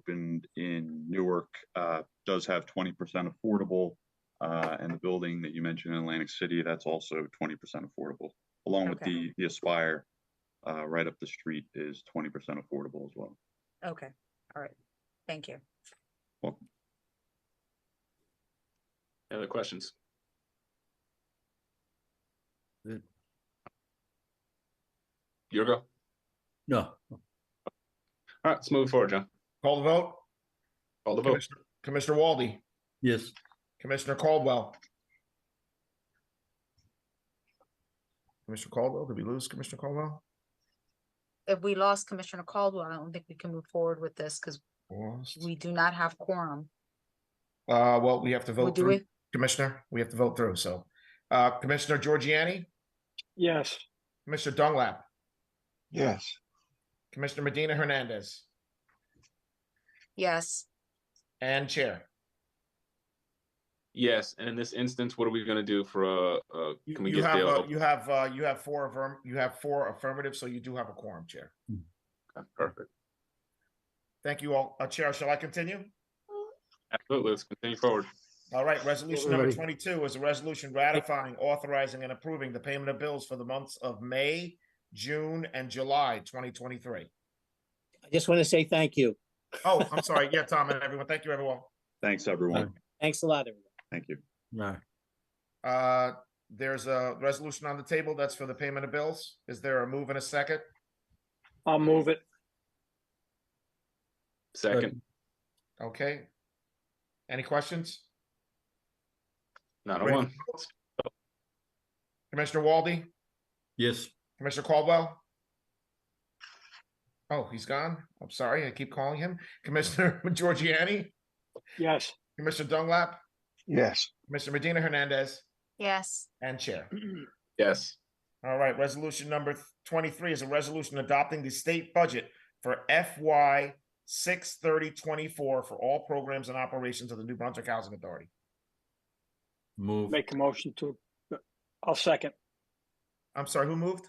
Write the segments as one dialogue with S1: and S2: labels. S1: opened in Newark, uh, does have twenty percent affordable. Uh, and the building that you mentioned in Atlantic City, that's also twenty percent affordable, along with
S2: Okay.
S1: the, the Aspire. Uh, right up the street is twenty percent affordable as well.
S2: Okay, all right, thank you.
S1: Welcome.
S3: Any other questions?
S4: Good.
S3: Your go. All
S4: No,
S3: right, let's move forward, John.
S5: Call the vote.
S3: Call the vote.
S5: Commissioner- Commissioner Walde,
S4: yes,
S5: Commissioner Caldwell. Commissioner Caldwell, did we lose Commissioner Caldwell?
S2: If we lost Commissioner Caldwell, I don't think we can move forward with this because
S5: Lost.
S2: we do not have quorum.
S5: Uh, well, we have to
S2: We'll
S5: vote
S2: do
S5: through,
S2: it,
S5: Commissioner, we have to vote through, so. Uh, Commissioner Giorgiani? Yes. Commissioner Dunlap,
S6: Yes,
S5: Commissioner Medina Hernandez,
S2: yes,
S5: and Chair.
S3: Yes, and in this instance, what are we gonna do for uh, uh,
S5: You
S3: can we
S5: you
S3: get
S5: have, uh,
S3: Dale?
S5: you have, uh, you have four affirm, you have four affirmative, so you do have a quorum, Chair.
S3: Okay, Perfect.
S5: Thank you all. Uh, Chair, shall I continue?
S3: Absolutely, let's continue forward.
S5: All right, resolution number
S6: Alrighty.
S5: twenty-two is a resolution ratifying, authorizing, and approving the payment of bills for the months of May, June, and July twenty twenty-three.
S7: I just want to say thank you.
S5: Oh, I'm sorry. Yeah, Tom and everyone, thank you, everyone.
S1: Thanks, everyone.
S7: Thanks a lot, everyone.
S1: Thank you.
S4: no,
S5: Uh, there's a resolution on the table that's for the payment of bills. Is there a move and a second?
S8: I'll move it.
S3: Second,
S5: Okay. Any questions?
S3: not a
S5: Ready?
S3: one.
S5: Commissioner Walde,
S4: yes,
S5: Commissioner Caldwell? Oh, he's gone. I'm sorry. I keep calling him. Commissioner Giorgiani,
S8: Yes.
S5: Commissioner Dunlap,
S6: yes,
S5: Commissioner Medina Hernandez,
S2: yes,
S5: and Chair.
S3: Yes,
S5: All right, resolution number th- twenty-three is a resolution adopting the state budget for FY six thirty twenty-four for all programs and operations of the New Brunswick Housing Authority.
S4: move
S8: Make a motion to, I'll second.
S5: I'm sorry, who moved?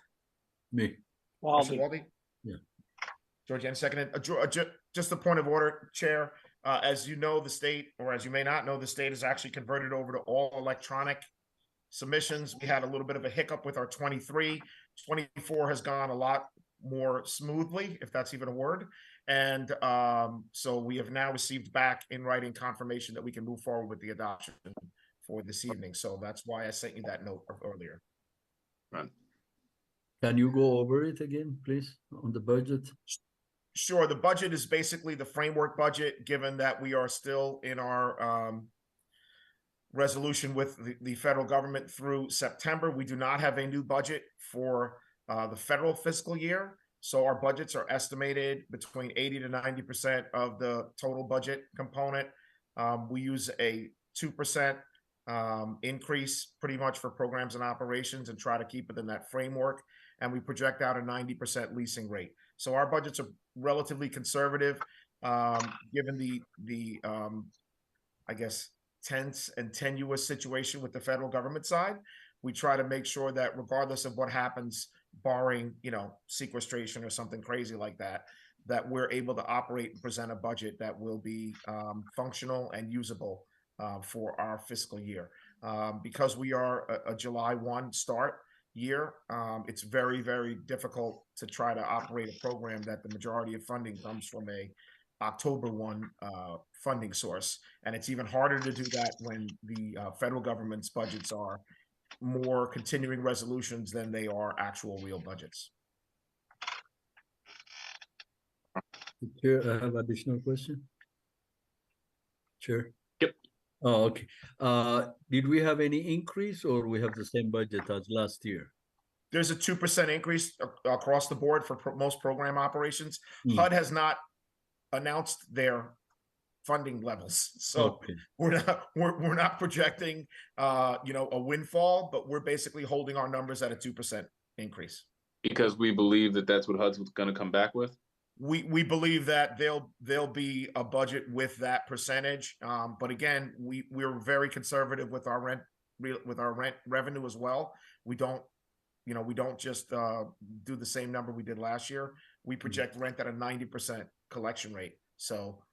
S4: me.
S5: Mr.
S8: Walden.
S5: Walde?
S4: Yeah.
S5: Georgiana seconded. Uh, Geo- uh, ju- Just a point of order, Chair. Uh, As you know, the state, or as you may not know, the state has actually converted over to all electronic submissions. We had a little bit of a hiccup with our 23. 24 has gone a lot more smoothly, if that's even a word. And um, so we have now received back in writing confirmation that we can move forward with the adoption for this evening. So that's why I sent you that note earlier.
S4: Can you go over it again, please, on the budget?
S5: Sure, the budget is basically the framework budget, given that we are still in our um resolution with the, the federal government through September. We do not have a new budget for uh the federal fiscal year. So our budgets are estimated between eighty to ninety percent of the total budget component. Um, we use a two percent um increase pretty much for programs and operations and try to keep it in that framework. And we project out a ninety percent leasing rate. So our budgets are relatively conservative, um, given the, the, um, I guess, tense and tenuous situation with the federal government side. We try to make sure that regardless of what happens, barring, you know, sequestration or something crazy like that, that we're able to operate and present a budget that will be, um, functional and usable, uh, for our fiscal year. Um, because we are a, a July one start, year. Um, it's very, very difficult to try to operate a program that the majority of funding comes from a October one uh, funding source, and it's even harder to do that when the uh, federal government's budgets are more continuing resolutions than they are actual real budgets.
S4: Chair, I have additional question. Chair?
S3: Yep.
S4: Oh, okay. Uh, did we have any increase or we have the same budget as last year?
S5: There's a two percent increase a- across the board for pro- most program operations.
S4: Hmm.
S5: HUD has not announced their funding levels, so.
S4: Okay,
S5: we're not we're, we're not projecting uh you know a windfall but we're basically holding our numbers at a 2% increase
S3: because we believe that that's what HUD's gonna come back with.
S5: we we believe that they'll they'll be a budget with that percentage um but again we we're very conservative with our rent re- with our rent revenue as well we don't you know we don't just uh do the same number we did last year we project rent at a 90% collection rate so